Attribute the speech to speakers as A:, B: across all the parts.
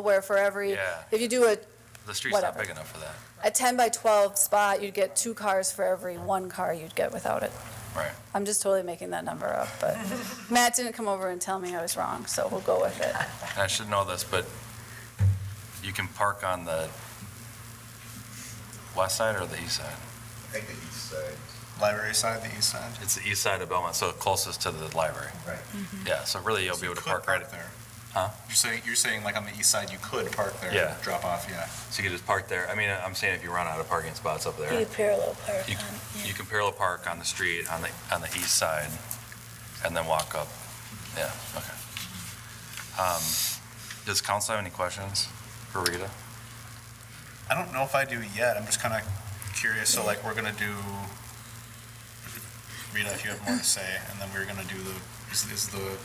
A: where for every,
B: Yeah.
A: if you do a,
B: The street's not
A: Whatever.
B: big enough for that.
A: a 10 by 12 spot, you'd get two cars for every one car you'd get without it.
B: Right.
A: I'm just totally making that number up, but Matt didn't come over and tell me I was wrong, so we'll go with it.
B: And I should know this, but you can park on the west side or the east side?
C: I think the east side. Library side, the east side.
B: It's the east side of Belmont, so closest to the library.
C: Right.
B: Yeah, so really you'll be able to park right,
C: there.
B: Huh?
C: You're saying, you're saying like on the east side, you could park there.
B: Yeah.
C: Drop off, yeah.
B: so you can just park there. I mean, I'm saying if you run out of parking spots up there,
D: You parallel park
B: You-
D: on,
B: you can parallel park on the street, on the, on the east side, and then walk up. Yeah, okay. Um, Does council have any questions for Rita?
C: I don't know if I do yet. I'm just kind of curious. So like, we're gonna do, Rita, if you have more to say, and then we're gonna do the, is, is the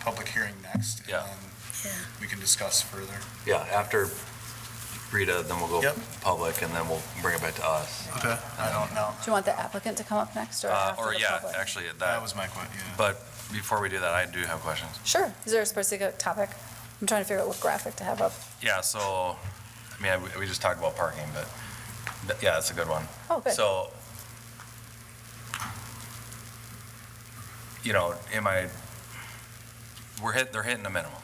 C: public hearing next? and
B: Yeah.
C: then
D: yeah.
C: We can discuss further.
B: Yeah, after Rita, then we'll go
C: Yep.
B: public, and then we'll bring it back to us.
C: Okay. I don't know.
A: Do you want the applicant to come up next or
B: Uh,
A: after
B: Or,
A: the
B: yeah,
A: public?
B: actually,
C: That
B: that,
C: was my question, yeah.
B: but before we do that, I do have questions.
A: Sure. Is there a specific topic? I'm trying to figure out what graphic to have up.
B: Yeah, so, I mean, we- we just talked about parking, but, th- yeah, that's a good one.
A: Oh, good.
B: So, you know, am I, we're hit, they're hitting the minimum.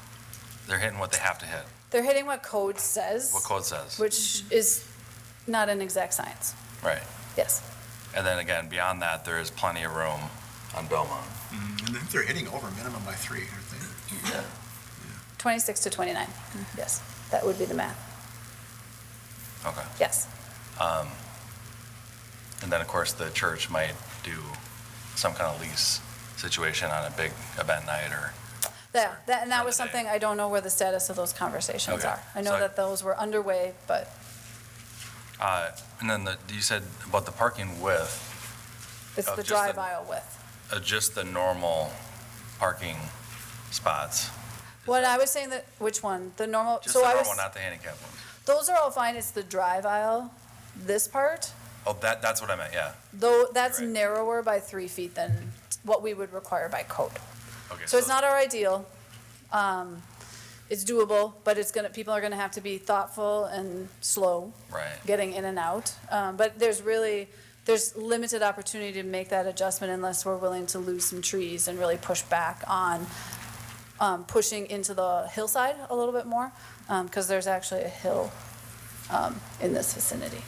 B: They're hitting what they have to hit,
A: They're hitting what code says,
B: what code says.
A: which is not an exact science.
B: Right.
A: Yes.
B: And then again, beyond that, there is plenty of room on Belmont.
C: Mm, And then they're hitting over minimum by three, aren't they?
A: 26 to 29. Yes. That would be the math.
B: Okay.
A: Yes.
B: Um, And then, of course, the church might do some kind of lease situation on a big event night or,
A: That, that, and that was
B: Another day.
A: something, I don't know where the status of those conversations
B: Okay.
A: are. I
B: So
A: know
B: I-
A: that those were underway, but
B: uh, and then the- you said about the parking width.
A: it's
B: Oh,
A: the
B: just the-
A: drive aisle width.
B: Uh, Just the normal parking spots?
A: What I was saying that, which one? The normal,
B: Just the
A: so I was,
B: normal, not the handicap ones?
A: those are all fine, it's the drive aisle, this part,
B: Oh, that, that's what I meant, yeah.
A: though, that's
B: Right.
A: narrower by three feet than what we would require by code.
B: Okay.
A: So it's not our ideal. Um, It's doable, but it's gonna, people are gonna have to be thoughtful and slow
B: Right,
A: getting in and out. Um, But there's really, there's limited opportunity to make that adjustment unless we're willing to lose some trees and really push back on um, pushing into the hillside a little bit more, because there's actually a hill um, in this vicinity.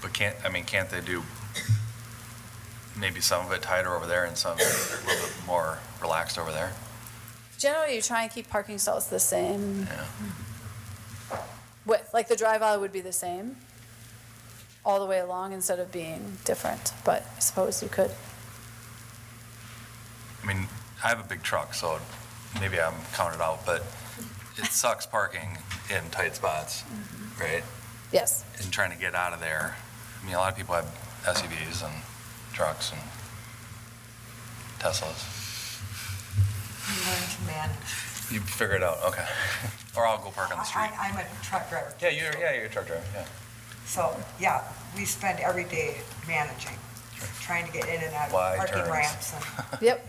B: but can't, I mean, can't they do maybe some of it tighter over there and some a little bit more relaxed over there?
A: Generally, you try and keep parking stalls the same
B: Yeah.
A: width, like the drive aisle would be the same all the way along instead of being different, but I suppose you could.
B: I mean, I have a big truck, so maybe I'm counted out, but it sucks parking in tight spots,
E: Mm-hmm.
B: right?
A: Yes,
B: And trying to get out of there. I mean, a lot of people have SUVs and trucks and Teslas.
E: learn to manage.
B: You figure it out, okay. Or I'll go park on the street.
E: I- I'm a truck driver.
B: Yeah, you're, yeah, you're a truck driver, yeah.
E: So, yeah, we spend every day managing, trying to get in and out of
B: Wide
E: parking
B: turns.
E: ramps and
A: yep.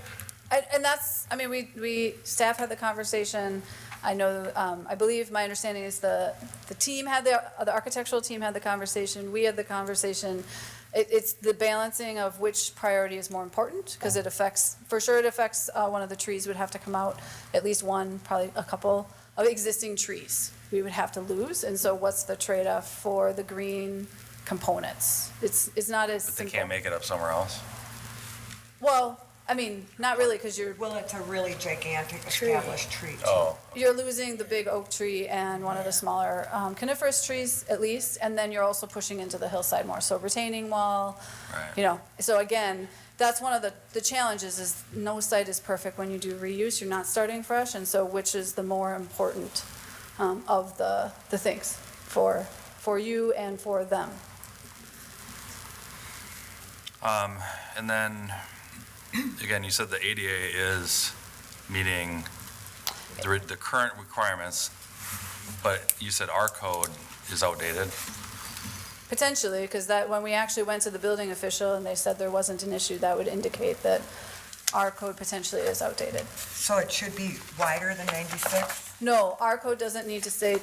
A: And, and that's, I mean, we, we, staff had the conversation. I know, um, I believe, my understanding is the, the team had the, the architectural team had the conversation, we had the conversation. It, it's the balancing of which priority is more important, because it affects, for sure it affects, uh, one of the trees would have to come out, at least one, probably a couple of existing trees we would have to lose, and so what's the trade-off for the green components? It's, it's not as
B: But they
A: simple.
B: can't make it up somewhere else?
A: Well, I mean, not really, because you're,
E: Well, it's a really gigantic
D: Tree.
E: established tree. too.
B: Oh,
A: you're losing the big oak tree and one of the smaller um, coniferous trees at least, and then you're also pushing into the hillside more, so retaining wall, you
B: right.
A: know. So again, that's one of the, the challenges is no site is perfect when you do reuse, you're not starting fresh, and so which is the more important um, of the, the things for, for you and for them?
B: Um, and then, again, you said the ADA is meeting the, re- the current requirements, but you said our code is outdated?
A: Potentially, because that, when we actually went to the building official and they said there wasn't an issue, that would indicate that our code potentially is outdated.
E: So it should be wider than 96?
A: No, our code doesn't need to say